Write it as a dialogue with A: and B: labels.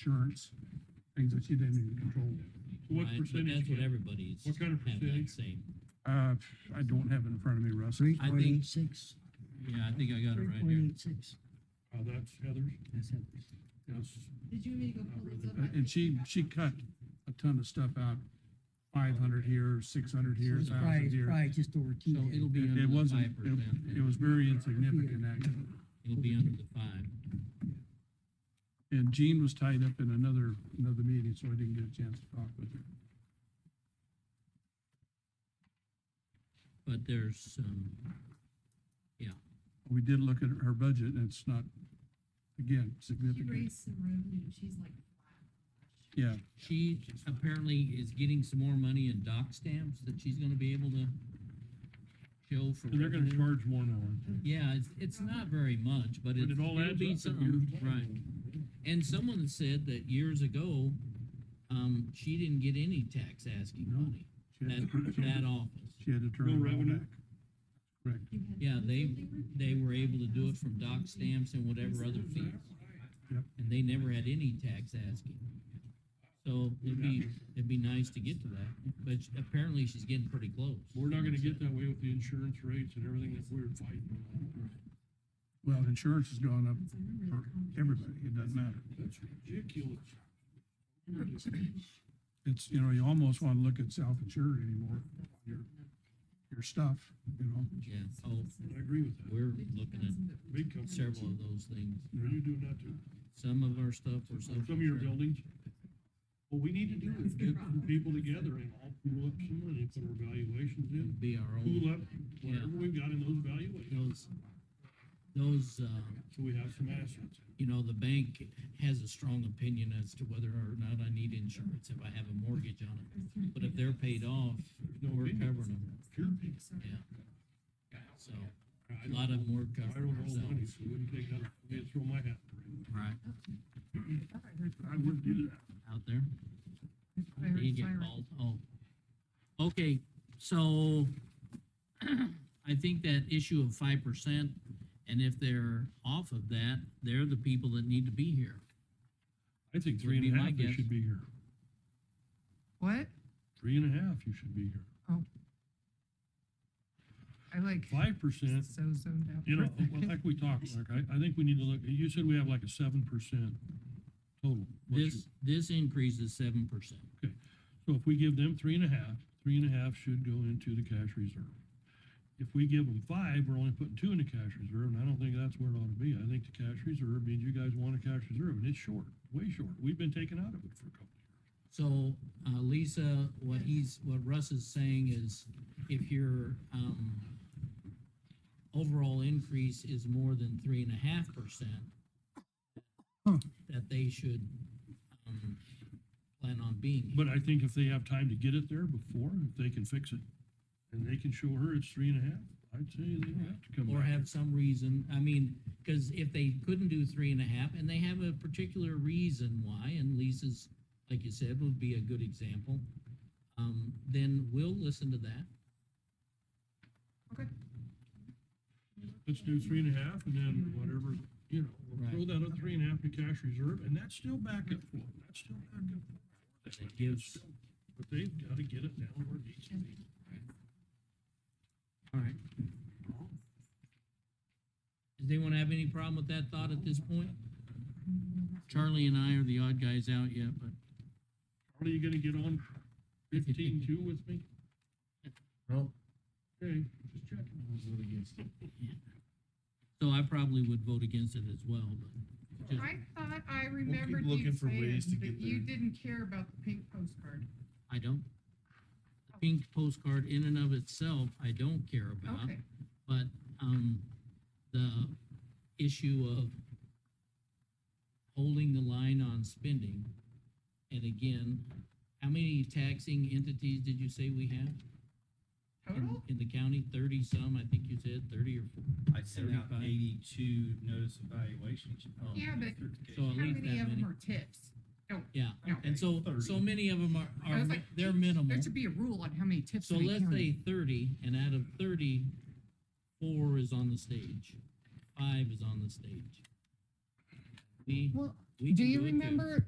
A: insurance, things that you didn't even control.
B: What
C: Right, but
B: percentage?
C: That's what everybody's.
B: What kind of
C: have that
B: percentage?
C: Same.
A: Uh, I don't have it in front of me, Russ.
D: Three
C: I
D: point
C: think-
D: eight six,
C: Yeah, I think I got it
D: three
C: right
D: point
C: here.
D: eight six.
B: Uh, that's Heather's,
D: That's it.
B: that's,
E: Did you want me to go pull this up?
A: Uh, And she, she cut a ton of stuff out, five hundred here, six hundred here,
D: It's
A: thousand
D: probably,
A: here.
D: probably just over two.
C: So it'll be
A: It
C: under
A: it
C: the
A: wasn't,
C: five
A: it, it
C: percent.
A: was very insignificant, actually.
C: It'll be under the five.
A: And Jean was tied up in another, another meeting, so I didn't get a chance to talk with her.
C: But there's, um,
A: We did look at her budget and it's not, again,
E: She
A: significant.
E: raised some revenue, and she's like,
A: Yeah,
C: she apparently is getting some more money in dock stamps that she's gonna be able to show for.
B: and they're gonna
C: revenue.
B: charge more now, aren't they?
C: Yeah, it's, it's not very much, but
B: But
C: it's,
B: it all
C: it'll
B: adds
C: be
B: up.
C: something, right. And someone said that years ago, um, she didn't get any tax asking
A: No.
C: money,
A: she
C: that,
A: had to- she had
C: that
A: to-
C: office.
A: she had to turn
B: No
A: it all
B: revenue?
A: back.
E: you had.
C: Yeah, they, they were able to do it from dock
E: dock
C: stamps and whatever other fees.
A: Yep.
C: And they never had any tax asking. So it'd be, it'd be nice to get to that, but sh- apparently she's getting pretty close.
B: We're not gonna get that way with the insurance rates and everything that we're fighting.
A: Well, insurance has gone up for everybody, it doesn't matter.
B: That's ridiculous.
A: It's, you know, you almost want to look at self-insured anymore, your, your stuff, you know?
C: Yeah, oh,
B: I agree with that.
C: we're looking
B: Big
C: at
B: company,
C: several of those things.
B: are you doing that too?
C: Some of our stuff or some.
B: Some of your buildings? What we need to do is get some people together and all pool up some money, put our valuations in,
C: Be our own,
B: pool up whatever we've got in those valuations,
C: those, those, uh,
B: so we have some assets.
C: you know, the bank has a strong opinion as to whether or not I need insurance if I have a mortgage on it. But if they're paid off,
B: No
C: we're
B: opinion.
C: covering them,
B: Sure.
C: yeah. So,
B: I
C: a lot of
B: don't-
C: them we're
B: I don't
C: covering
B: owe money,
C: ourselves.
B: so wouldn't take that, I'd throw my hat. in the ring.
C: Right,
B: I wouldn't do that.
C: out there, you get called, oh. Okay, so I think that issue of five percent, and if they're off of that, they're the people that need to be here.
B: I think
C: Would
B: three
C: be
B: and a
C: my
B: half, you
C: guess.
B: should be here.
E: What?
B: Three and a half, you should be here.
E: I like,
B: Five percent,
E: so zoned out.
B: you know, well, like we talked, Mark, I, I think we need to look, you said we have like a seven percent total. What's your-
C: This, this increase is seven percent.
B: So if we give them three and a half, three and a half should go into the cash reserve. If we give them five, we're only putting two in the cash reserve, and I don't think that's where it ought to be. I think the cash reserve means you guys want a cash reserve, and it's short, way short. We've been taken out of it for a couple of
C: So, uh, Lisa, what he's, what Russ is saying is if your, um, overall increase is more than three and a half percent,
A: Huh.
C: that they should, um, plan on being.
B: years. But I think if they have time to get it there before, if they can fix it, and they can show her it's three and a half, I'd say they don't have to come
C: Or
B: back.
C: have some reason, I mean, cause if they couldn't do three and a half and they have a particular reason why, and Lisa's, like you said, would be a good example, um, then we'll listen to that.
B: Let's do three and a half, and then whatever, you know, we'll throw
C: Right.
B: that up three and a half to cash reserve, and that's still backup for them. That's still backup.
C: And it gives,
B: But they've got to get it down where it needs to be.
C: all right. Does anyone have any problem with that thought at this point? Charlie and I are the odd guys out yet, but
B: Are you gonna get on fifteen two with me?
F: No.
B: Okay, just checking.
C: so I probably would vote against it as well, but just,
E: I thought I remembered you
F: looking for
E: saying
F: ways to
E: that
F: get
E: you
F: there.
E: didn't care about the pink postcard.
C: I don't. The Pink postcard in and of itself, I don't care about,
E: Okay,
C: but, um, the issue of holding the line on spending. And again, how many taxing entities did you say we have? in-
E: total?
C: In the county, thirty some, I think you said, thirty or,
F: I sent out
C: 35.
F: eighty-two notice evaluations.
C: Oh.
E: Yeah, but-
C: So-
E: How
C: I'll leave
E: many
C: that
E: of them
C: many.
E: are tips?
C: yeah,
E: No.
C: and so, so
F: 30.
C: many of them are,
E: I
C: are,
E: was
C: mi-
E: like,
C: they're
E: "Geez,
C: minimal.
E: There should be a rule on how many tips.
C: So
E: to be
C: let's
E: counted."
C: say thirty, and out of thirty, four is on the stage, five is on the stage. We,
E: Well,
C: we
E: do
C: can
E: you
C: do it there.
E: remember